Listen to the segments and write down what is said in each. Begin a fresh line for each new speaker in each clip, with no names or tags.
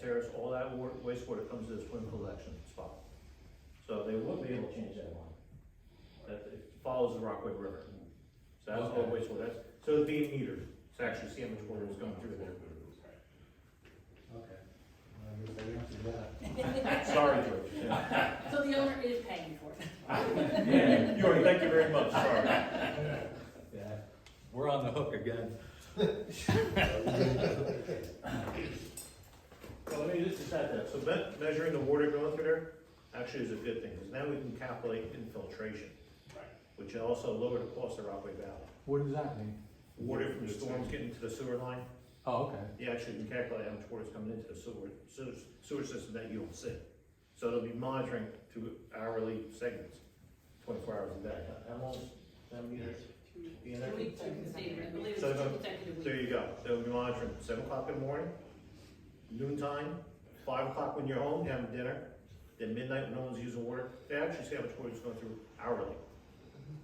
terrace, all that wa- wastewater comes to this swim collection spot. So they will be able to change that line. That, it follows the Rockaway River. So that's all
Okay.
wastewater, that's, so it'd be metered, to actually see how much water is going through there.
Okay. Well, I guess I answered that.
Sorry, George. Yeah.
So the owner is paying for it.
Yeah, you are, thank you very much, sorry.
Yeah.
We're on the hook again.
Well, let me just decide that, so me- measuring the water going through there actually is a good thing, because now we can calculate infiltration.
Right.
Which also lower the cost of Rockaway Valley.
What does that mean?
Water from storms getting to the sewer line,
Oh, okay.
you actually can calculate how much water is coming into the sewer, sewer, sewer system that you don't see. So it'll be monitoring to hourly segments, twenty-four hours a day. How long, is that meter being there?
Two weeks, two consecutive, I believe it's
So
two
the-
consecutive
There
weeks.
you go, they'll be monitoring seven o'clock in the morning, noontime, five o'clock when you're home, having dinner, then midnight when no one's using water, they actually see how much water is going through hourly.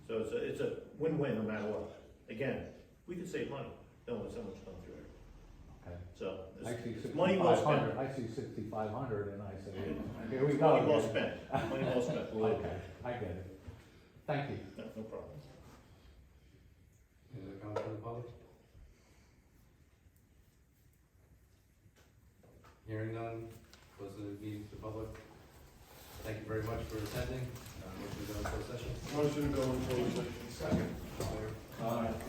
So it's a, it's a win-win no matter what. Again, we could save money, knowing so much going through it,
Okay.
so.
I
it's-
see
it's Money well
sixty-five
spent,
hundred, I see sixty-five hundred and I say, here we
money
go.
well
again."
spent, money well spent,
Okay, I get it. Thank you.
no no problem.
Is it coming from the public?
Hearing none, close the meeting to the public. Thank you very much for attending. Uh, Motion to go into closed session.
Motion to go into executive session.
All in favor?
All right.